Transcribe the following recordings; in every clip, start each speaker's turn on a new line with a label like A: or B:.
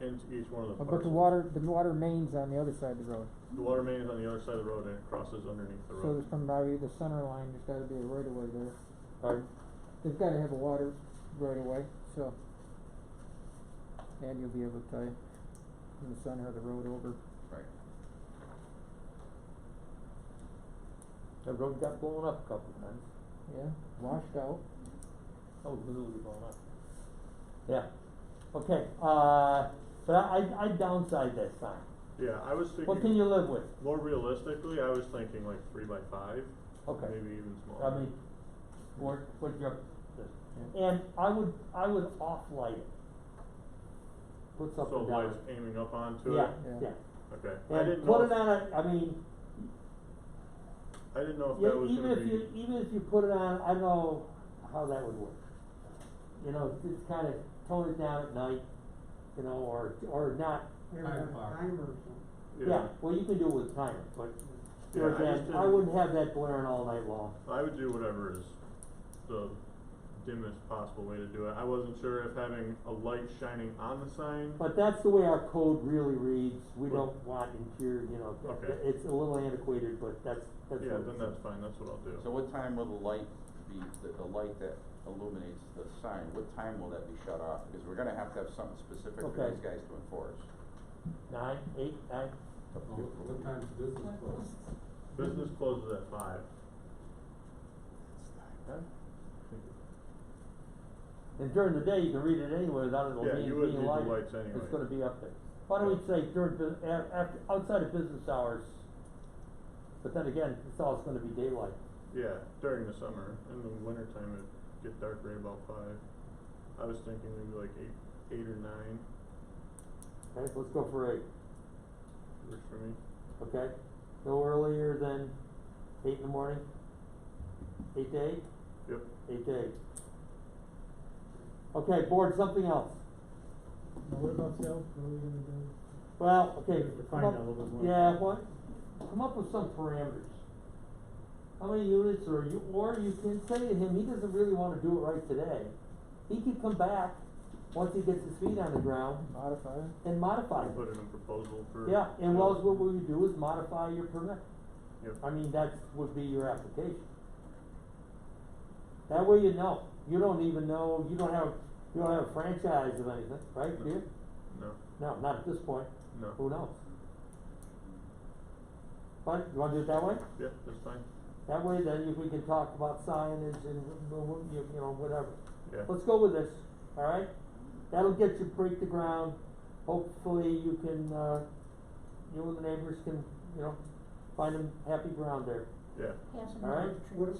A: It's, it's one of the.
B: But
A: parcels.
B: the water, the water main's on the other side of the road.
A: The water main is on the other side of the road and it crosses underneath the
B: So
A: road.
B: there's somebody, the center line, there's gotta be a right of way there.
C: Pardon?
B: They've gotta have a water right of way, so. And you'll be able to tell you in the center of the road over.
D: Right.
C: That road got blown up a couple of times.
B: Yeah, washed out.
C: Oh, literally blown up. Yeah, okay, uh, but I, I, I downside that sign.
A: Yeah, I was thinking.
C: What can you live with?
A: More realistically, I was thinking like three by five.
C: Okay.
A: Maybe even smaller.
C: I mean, what, what your,
B: Yeah.
C: and I would, I would off-light it. Put
A: So
C: something down.
A: lights aiming up onto it?
C: Yeah,
B: Yeah.
C: yeah.
A: Okay. I
C: And
A: didn't
C: put
A: know,
C: it
A: if-
C: on a, I mean,
A: I didn't know if
C: Yeah,
A: that was
C: even
A: gonna
C: if
A: be,
C: you, even if you put it on, I know how that would work. You know, just kind of tone it down at night, you know, or, or not,
E: Time bar.
C: yeah, well, you can do it with timer, but,
A: Yeah, I
C: there again,
A: just
C: I
A: didn't-
C: wouldn't have that blaring all night long.
A: I would do whatever is the dimmest possible way to do it. I wasn't sure if having a light shining on the sign.
C: But that's the way our code really reads, we
A: Well-
C: don't want interior, you know, th-
A: Okay.
C: it's a little antiquated, but that's, that's
A: Yeah,
C: what
A: then
C: it
A: that's
C: says.
A: fine, that's what I'll do.
D: So what time will the light be, the, the light that illuminates the sign, what time will that be shut off? Because we're gonna have to have something specific for
C: Okay.
D: these guys to enforce.
C: Nine, eight, nine,
D: Up to you.
E: Oh, What time's business close?
A: Business closes at five.
C: and during the day, you can read it anyway without it
A: Yeah,
C: being,
A: you would
C: being
A: need the
C: lighted.
A: lights anyway.
C: It's gonna be up there. Why don't we say during, bu- a- after, outside of business hours, but then again, it's all, it's gonna be daylight.
A: Yeah, during the summer, in the wintertime, it'd get dark right about five. I was thinking maybe like eight, eight or nine,
C: Okay, let's go for eight,
A: works for me.
C: okay? No earlier than eight in the morning? Eight to eight?
A: Yep,
C: Eight to eight. Okay, board, something else?
F: Now, what about sales, what are we gonna do?
C: Well, okay,
F: Define
C: come up,
F: that a little bit more.
C: yeah, what, come up with some parameters. How many units, or you, or you can say to him, he doesn't really wanna do it right today. He could come back, once he gets his feet on the ground,
B: Modify it.
C: and modify
A: I
C: it.
A: put in a proposal for. uh,
C: Yeah, and Wells, what we would do is modify your permit.
A: Yep.
C: I mean, that's, would be your application. That way you know, you don't even know, you don't have, you don't have a franchise of anything, right,
A: No.
C: dear?
A: No,
C: No, not at this point,
A: no,
C: who knows? But, you wanna do it that way?
A: yeah, that's fine,
C: That way then if we can talk about signage and, wh- wh- you, you know, whatever.
A: yeah.
C: Let's go with this, alright? That'll get you, break the ground, hopefully you can, uh, you and the neighbors can, you know, find them happy ground there.
A: Yeah,
G: Pass them
C: All right.
G: on.
F: What if,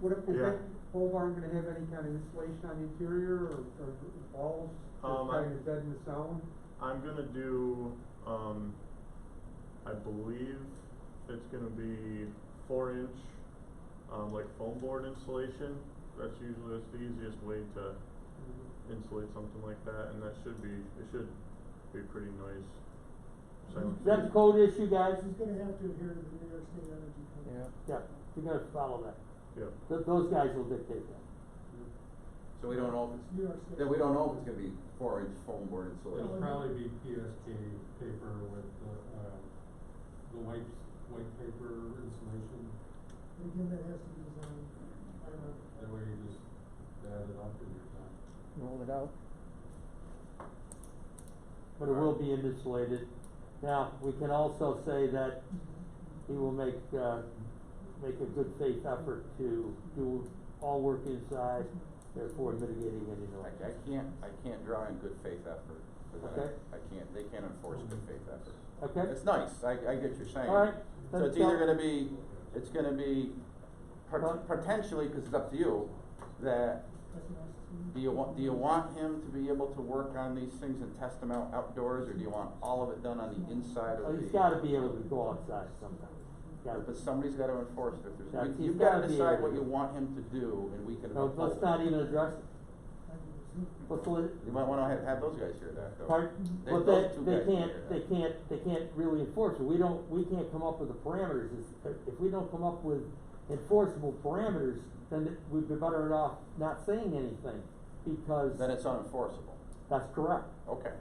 F: what if the
A: Yeah.
F: big poles aren't gonna have any kind of insulation on the interior or, or walls,
A: Um,
F: just
A: I-
F: kind of dead in the sound?
A: I'm gonna do, um, I believe it's gonna be four inch, um, like foam board insulation. That's usually, that's the easiest way to insulate something like that, and that should be, it should be pretty noise. silencing.
C: That's a code issue, guys,
E: He's gonna have to adhere to the New York State Energy Code.
B: Yeah.
C: yeah, you're gonna follow that,
A: Yeah,
C: Th- those guys will dictate that.
D: So we don't know if
E: New York State.
D: it's, then we don't know if it's gonna be four inch foam board
E: It'll
D: insulation.
E: probably be PSK paper with the, um, the white, white paper insulation. Again, that has to be designed. That way you just add it up in your time.
B: Roll it out.
C: But it will be insulated, now, we can also say that
E: Mm-hmm.
C: he will make, uh, make a good faith effort to do all work inside, therefore mitigating any
D: I,
C: noise.
D: I can't, I can't draw in good faith effort, because
C: Okay.
D: I, I can't, they can't enforce good faith effort.
C: Okay?
D: It's nice, I, I get your saying.
C: Alright,
D: So
C: then
D: it's either
C: so-
D: gonna be, it's gonna be pot-
C: Well-
D: potentially, cause it's up to you, that, do you want, do you want him to be able to work on these things and test them out outdoors, or do you want all of it done on the inside
C: Oh,
D: of the?
C: he's gotta be able to go outside sometime, gotta,
D: But somebody's gotta enforce it, if
C: Yeah,
D: there's,
C: he's
D: you've gotta
C: gotta be
D: decide
C: able
D: what
C: to.
D: you want him to do, and we can.
C: no, let's
D: uphold
C: not
D: it.
C: even address it, let's let,
D: You might wanna have, have those guys here that though.
C: Pardon?
D: They-
C: But
D: those
C: that,
D: two
C: they
D: guys here,
C: can't, they
D: yeah.
C: can't, they can't really enforce it, we don't, we can't come up with the parameters, if, if we don't come up with enforceable parameters, then it- we'd be better off not saying anything, because
D: Then it's unenforceable,
C: that's correct.
D: okay.